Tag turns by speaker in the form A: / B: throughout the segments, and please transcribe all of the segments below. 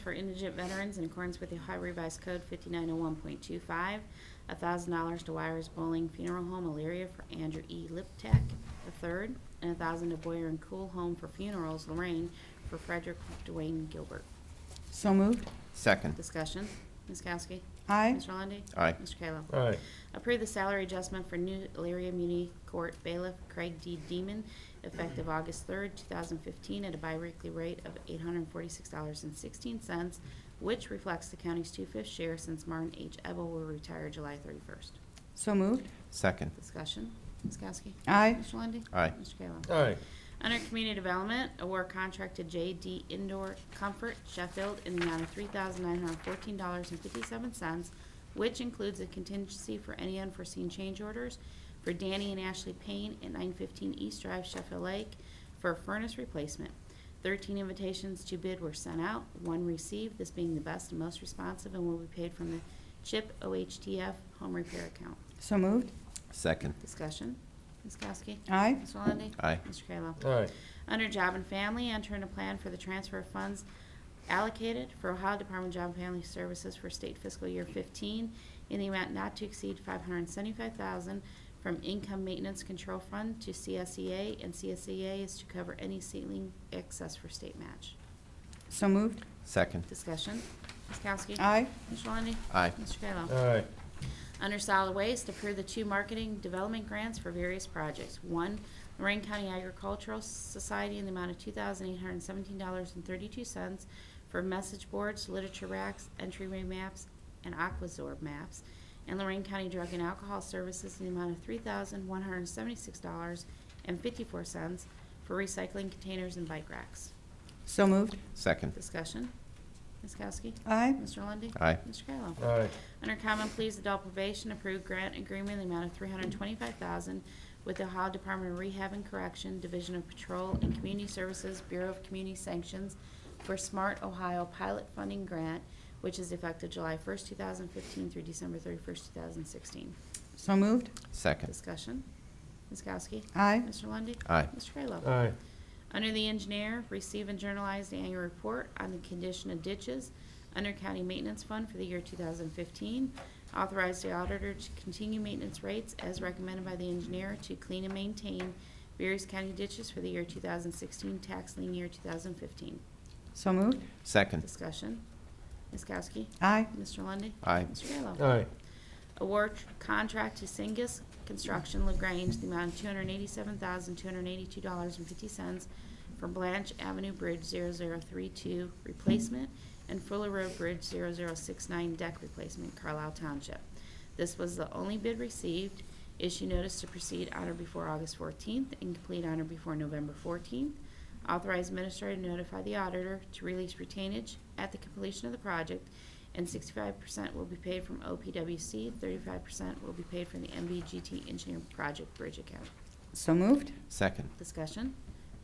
A: for indigent veterans in accordance with the Ohio Revised Code 5901.25, $1,000 to Wires Bowling Funeral Home, Elyria, for Andrew E. Liptak III, and $1,000 to Boyer and Cool Home for Funerals, Lorraine, for Frederick Dwayne Gilbert.
B: So moved.
C: Second.
A: Discussion. Ms. Kowski?
B: Aye.
A: Mr. Lundey?
C: Aye.
A: Mr. Kayla?
D: aye,
A: Approve the salary adjustment for new Elyria Muni Court bailiff Craig D. Demon, effective August 3rd, 2015, at a biweekly rate of $846.16, which reflects the county's two-fifths share since Martin H. Ebel will retire July 31st.
B: So moved.
C: Second.
A: Discussion. Ms. Kowski?
B: Aye.
A: Mr. Lundey?
C: Aye.
A: Mr. Kayla?
D: aye,
A: Under Community Development, award contract to JD Indoor Comfort Sheffield in the amount of $3,914.57, which includes a contingency for any unforeseen change orders for Danny and Ashley Payne at 915 East Drive, Sheffield Lake, for a furnace replacement. 13 invitations to bid were sent out, one received, this being the best and most responsive, and will be paid from the CHIP OHTF home repair account.
B: So moved.
C: Second.
A: Discussion. Ms. Kowski?
B: Aye.
A: Mr. Lundey?
C: Aye.
A: Mr. Kayla?
D: aye,
A: Under Job and Family, enter in a plan for the transfer of funds allocated for Ohio Department of Job and Family Services for state fiscal year 15 in the amount not to exceed 575000 from Income Maintenance Control Fund to CSEA, and CSEA is to cover any ceiling excess for state match.
B: So moved.
C: Second.
A: Discussion. Ms. Kowski?
B: Aye.
A: Mr. Lundey?
C: Aye.
A: Mr. Kayla?
D: aye,
A: Under solid waste, approve the two marketing development grants for various projects. One, Lorraine County Agricultural Society in the amount of two thousand eight hundred seventeen dollars and thirty-two cents for message boards, literature racks, entryway maps, and Aquazorb maps. And Lorraine County Drug and Alcohol Services in the amount of three thousand one hundred seventy-six dollars and fifty-four cents for recycling containers and bike racks.
B: So moved.
C: Second.
A: Discussion? Ms. Kowski?
B: Aye.
A: Mr. Lundey?
C: Aye.
A: Mr. Kayla?
D: aye,
A: Under Common Pleas Adult Probation, approved grant agreement in the amount of $325,000 with the Ohio Department of Rehab and Correction, Division of Patrol and Community Services, Bureau of Community Sanctions for Smart Ohio Pilot Funding Grant, which is effective July 1st, 2015 through December 31st, 2016.
B: So moved.
C: Second.
A: Discussion. Ms. Kowski?
B: Aye.
A: Mr. Lundey?
C: Aye.
A: Mr. Kayla?
D: aye,
A: Under the engineer, receive and journalize the annual report on the condition of ditches under County Maintenance Fund for the year 2015. Authorize the auditor to continue maintenance rates as recommended by the engineer to clean and maintain various county ditches for the year 2016, tax lien year 2015.
B: So moved.
C: Second.
A: Discussion. Ms. Kowski?
B: Aye.
A: Mr. Lundey?
C: Aye.
A: Mr. Kayla?
D: aye,
A: Award contract to Singus Construction LaGrange, the amount of two hundred eighty-seven thousand, two hundred eighty-two dollars and fifty cents for Blanche Avenue Bridge 0032 replacement and Fuller Road Bridge 0069 deck replacement, Carlisle Township. This was the only bid received. Issue notice to proceed on or before August 14th and complete on or before November 14th. Authorize administrator to notify the auditor to release retainage at the completion of the project, and 65% will be paid from OPWC, 35% will be paid from the MVGT Engineering Project Bridge Account.
B: So moved.
C: Second.
A: Discussion?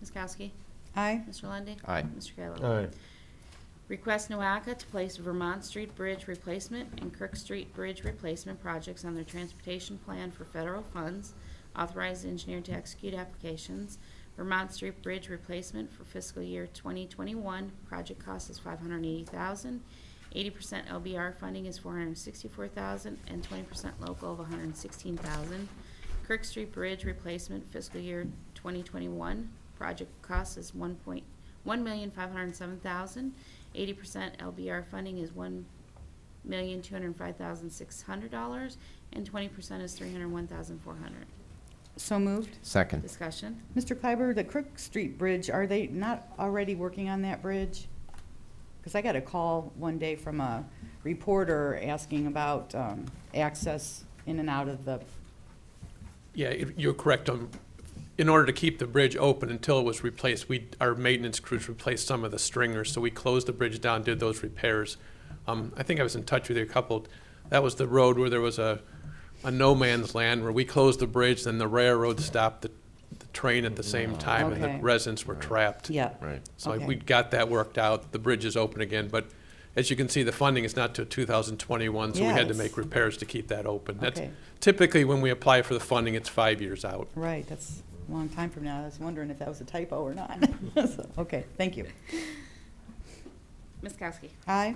A: Ms. Kowski?
B: Aye.
A: Mr. Lundy.
C: Aye.
A: Mr. Kayla?
D: aye,
A: Request NOACA to place Vermont Street Bridge Replacement and Kirk Street Bridge Replacement projects on their transportation plan for federal funds. Authorize the engineer to execute applications. Vermont Street Bridge Replacement for fiscal year 2021, project cost is 580000 80% LBR funding is 464000 and 20% local of 116000 Kirk Street Bridge Replacement fiscal year 2021, project cost is 1. point one million five hundred and seven thousand. Eighty percent LBR funding is one million two hundred and five thousand six hundred dollars, and twenty percent is three hundred and one thousand four hundred.
B: So moved.
C: Second.
A: Discussion?
B: Mr. Kleiber, the Crook Street Bridge, are they not already working on that bridge? Because I got a call one day from a reporter asking about um, access in and out of the,
E: Yeah, if- you're correct. um, In order to keep the bridge open until it was replaced, we, our maintenance crews replaced some of the stringers, so we closed the bridge down, did those repairs. Um, I think I was in touch with you a couple, that was the road where there was a, a no man's land where we closed the bridge, then the railroad stopped the, the train at the same time and
B: Okay.
E: the residents were trapped.
B: yeah.
C: Right.
E: So
B: Okay.
E: we got that worked out. The bridge is open again, but as you can see, the funding is not till 2021, so we had to
B: Yes.
E: make repairs to keep that open. That's
B: Okay.
E: Typically, when we apply for the funding, it's five years out.
B: Right, that's a long time from now. I was wondering if that was a typo or not. So, Okay, thank you.
F: Ms. Kowski?
A: Aye.